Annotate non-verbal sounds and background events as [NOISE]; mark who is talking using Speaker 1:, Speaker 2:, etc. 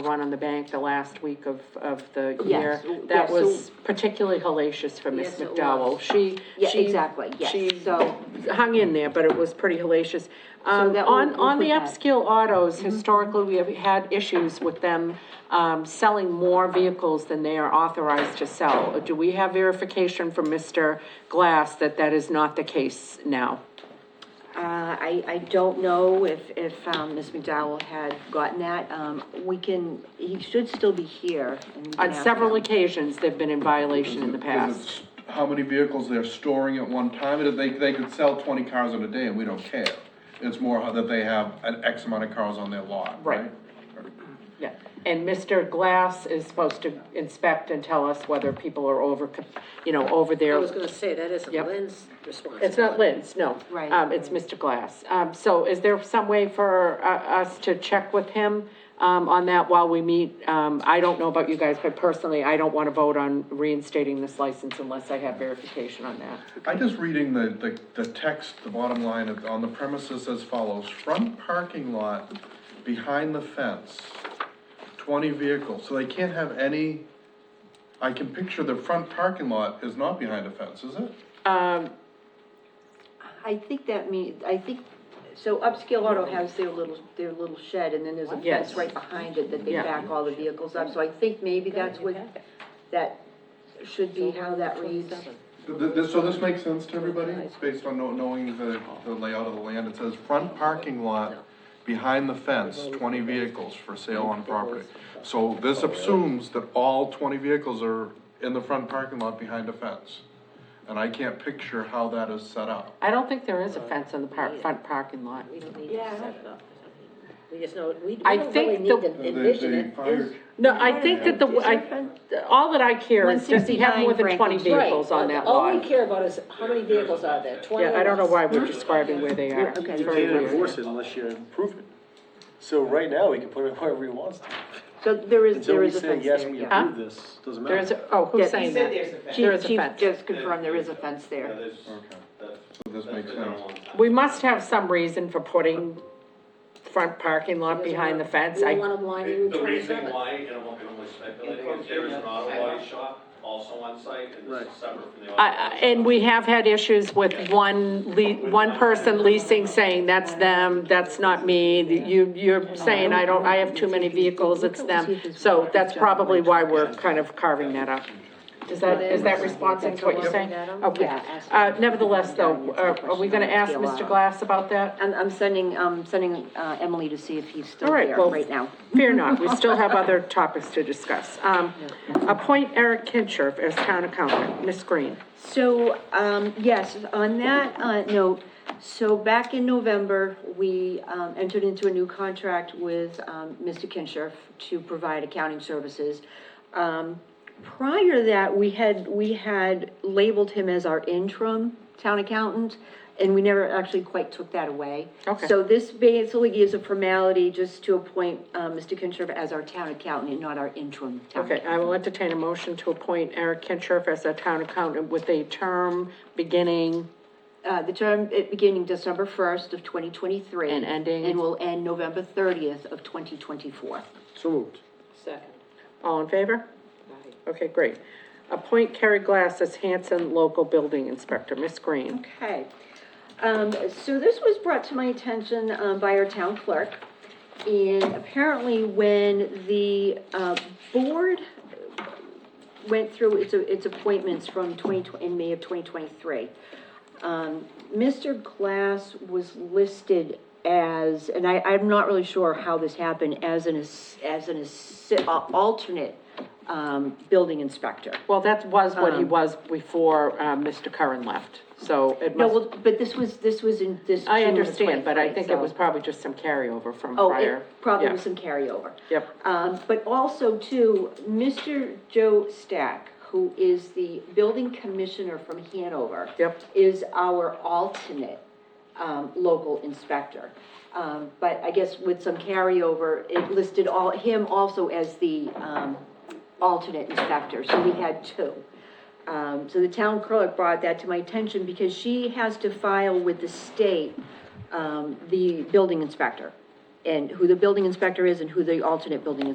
Speaker 1: run on the bank the last week of, of the year.
Speaker 2: Yes, w-
Speaker 1: That
Speaker 2: yes,
Speaker 1: was
Speaker 2: so-
Speaker 1: particularly hellacious for Miss
Speaker 2: Yes, it
Speaker 1: McDowell.
Speaker 2: was.
Speaker 1: She,
Speaker 2: Yeah,
Speaker 1: she-
Speaker 2: exactly, yes.
Speaker 1: she
Speaker 2: So- uh,
Speaker 1: Hung in there, but it was pretty hellacious. Um,
Speaker 2: that will-
Speaker 1: on,
Speaker 2: we'll
Speaker 1: on the
Speaker 2: put that. Mm-hmm.
Speaker 1: upscale autos, historically, we have had issues with them, um, selling more vehicles than they are authorized to sell. Do we have verification from Mr. Glass that that is not the case now?
Speaker 2: Uh, I, I don't know if, if, um, Ms. McDowell had gotten that, um, we can, he should still be here. and we can
Speaker 1: On
Speaker 2: ask
Speaker 1: several
Speaker 2: him.
Speaker 1: occasions, they've been in violation in the
Speaker 3: Because
Speaker 1: past.
Speaker 3: it's How many vehicles they're storing at one time, and if they, they could sell twenty cars in a day and we don't care. It's more how that they have an X amount of cars on their lot,
Speaker 1: Right.
Speaker 3: right?
Speaker 1: Yeah, and Mr. Glass is supposed to inspect and tell us whether people are over, you know, over
Speaker 4: I
Speaker 1: their.
Speaker 4: was gonna say, that isn't
Speaker 1: Yep.
Speaker 4: Lynn's responsibility.
Speaker 1: It's not Lynn's, no.
Speaker 2: Right.
Speaker 1: Um, it's Mr. Glass. Um, so is there some way for, uh, us to check with him, um, on that while we meet? Um, I don't know about you guys, but personally, I don't want to vote on reinstating this license unless I have verification on that.
Speaker 3: I just reading the, the, the text, the bottom line of, on the premises as follows, front parking lot, behind the fence, twenty vehicles, so they can't have any, I can picture the front parking lot is not behind a fence, is it?
Speaker 2: I think that means, I think, so Upscale Auto has their little, their little shed, and then there's a
Speaker 1: Yes.
Speaker 2: fence right behind it that they
Speaker 1: Yeah.
Speaker 2: back all the vehicles up, so I think maybe that's what, that should be how that reads.
Speaker 3: Th- th- this- So this makes sense to everybody, It's based on know- knowing the, the layout of the land, it says front parking lot, behind the fence, twenty vehicles for sale on property. So this assumes that all twenty vehicles are in the front parking lot behind a fence. And I can't picture how that is set up.
Speaker 1: I don't think there is a fence on the par, front parking lot.
Speaker 4: We don't need to set it up. We just know, we, we
Speaker 1: I
Speaker 4: don't
Speaker 1: think
Speaker 4: really
Speaker 1: the-
Speaker 4: need to envision it. There's-
Speaker 1: No, I think that the,
Speaker 2: Is there a
Speaker 1: I,
Speaker 2: fence?
Speaker 1: all that I care is, does he have more than
Speaker 2: 169
Speaker 1: twenty
Speaker 2: Franklin.
Speaker 1: vehicles on that lot?
Speaker 4: All we care about is how many vehicles are there, twenty
Speaker 1: Yeah, I don't know
Speaker 4: or less.
Speaker 1: why we're describing where they are.
Speaker 2: Okay.
Speaker 1: It's
Speaker 5: You
Speaker 1: very
Speaker 5: can't
Speaker 1: weird.
Speaker 5: enforce it unless you improve it. So right now, he can put it [LAUGHS] wherever he wants to.
Speaker 2: So there is,
Speaker 5: Until
Speaker 2: there
Speaker 5: we
Speaker 2: is a
Speaker 5: say,
Speaker 2: fence
Speaker 5: yes,
Speaker 2: there,
Speaker 5: we
Speaker 2: yeah.
Speaker 5: approve this, doesn't
Speaker 1: There is,
Speaker 5: matter.
Speaker 1: a- oh,
Speaker 2: Yeah,
Speaker 1: who's
Speaker 2: he
Speaker 1: saying
Speaker 2: said
Speaker 1: that? There
Speaker 2: Chief,
Speaker 1: is a
Speaker 2: Chief
Speaker 1: fence.
Speaker 2: just confirmed there is a fence there.
Speaker 6: There's, that's,
Speaker 3: So this
Speaker 6: that's
Speaker 3: makes
Speaker 6: been there a
Speaker 3: sense.
Speaker 6: long time.
Speaker 1: We must have some reason for putting front parking lot behind the fence.
Speaker 4: We don't
Speaker 1: I,
Speaker 4: want them lining Route
Speaker 6: The reason
Speaker 4: twenty-seven.
Speaker 6: why, and I'm not gonna speculate, is there is an auto body shop also on site and this is separate from the auto.
Speaker 1: I,
Speaker 6: body
Speaker 1: I-
Speaker 6: shop.
Speaker 1: and we have had issues with one le, one person leasing saying, that's them, that's not me. You, you're saying, I don't, I have too many vehicles, it's them. So that's probably why we're kind of carving that up. Is that, is that responsive to what you're saying? Okay. Uh, nevertheless, though, are, are we gonna ask Mr. Glass about that?
Speaker 2: I'm, I'm sending, um, sending, uh, Emily to see if he's still
Speaker 1: All right,
Speaker 2: there
Speaker 1: well-
Speaker 2: right now.
Speaker 1: Fear not, we still have other topics to discuss. Um, appoint Eric Kincher as town accountant, Ms. Green.
Speaker 2: So, um, yes, on that, uh, note, so back in November, we, um, entered into a new contract with, um, Mr. Kinshirf to provide accounting services. Um, prior to that, we had, we had labeled him as our interim town accountant, and we never actually quite took that away.
Speaker 1: Okay.
Speaker 2: So this basically is a formality just to appoint, uh, Mr. Kinshirf as our town accountant and not our interim town
Speaker 1: Okay,
Speaker 2: accountant.
Speaker 1: I will entertain a motion to appoint Eric Kincher as a town accountant with a term beginning,
Speaker 2: Uh, the term uh, beginning December first of twenty twenty-three.
Speaker 1: And ending-
Speaker 2: And will end November thirtieth of twenty twenty-four.
Speaker 5: So moved.
Speaker 4: Second.
Speaker 1: all in favor? Okay, great. Appoint Kerry Glass as Hanson Local Building Inspector, Ms. Green.
Speaker 2: Okay. Um, so this was brought to my attention, um, by our town clerk. And apparently when the, uh, board went through its, its appointments from twenty, in May of twenty twenty-three, um, Mr. Glass was listed as, and I, I'm not really sure how this happened, as an, ass- as an assi- uh, alternate, um, building inspector.
Speaker 1: Well, that was what he was before, uh, Mr. Curran left, so it
Speaker 2: No,
Speaker 1: must,
Speaker 2: well, but this was, this was in, this.
Speaker 1: I
Speaker 2: June of
Speaker 1: understand, but I
Speaker 2: 23,
Speaker 1: think it was
Speaker 2: so-
Speaker 1: probably just some carryover from
Speaker 2: Oh,
Speaker 1: prior.
Speaker 2: it probably
Speaker 1: Yeah.
Speaker 2: was some carryover.
Speaker 1: Yep.
Speaker 2: Um, but also too, Mr. Joe Stack, who is the building commissioner from Hanover.
Speaker 1: Yep.
Speaker 2: Is our alternate, um, local inspector. Um, but I guess with some carryover, it listed all, him also as the, um, alternate inspector, so we had two. Um, so the town clerk brought that to my attention because she has to file with the state, um, the building inspector and who the building inspector is and who the alternate building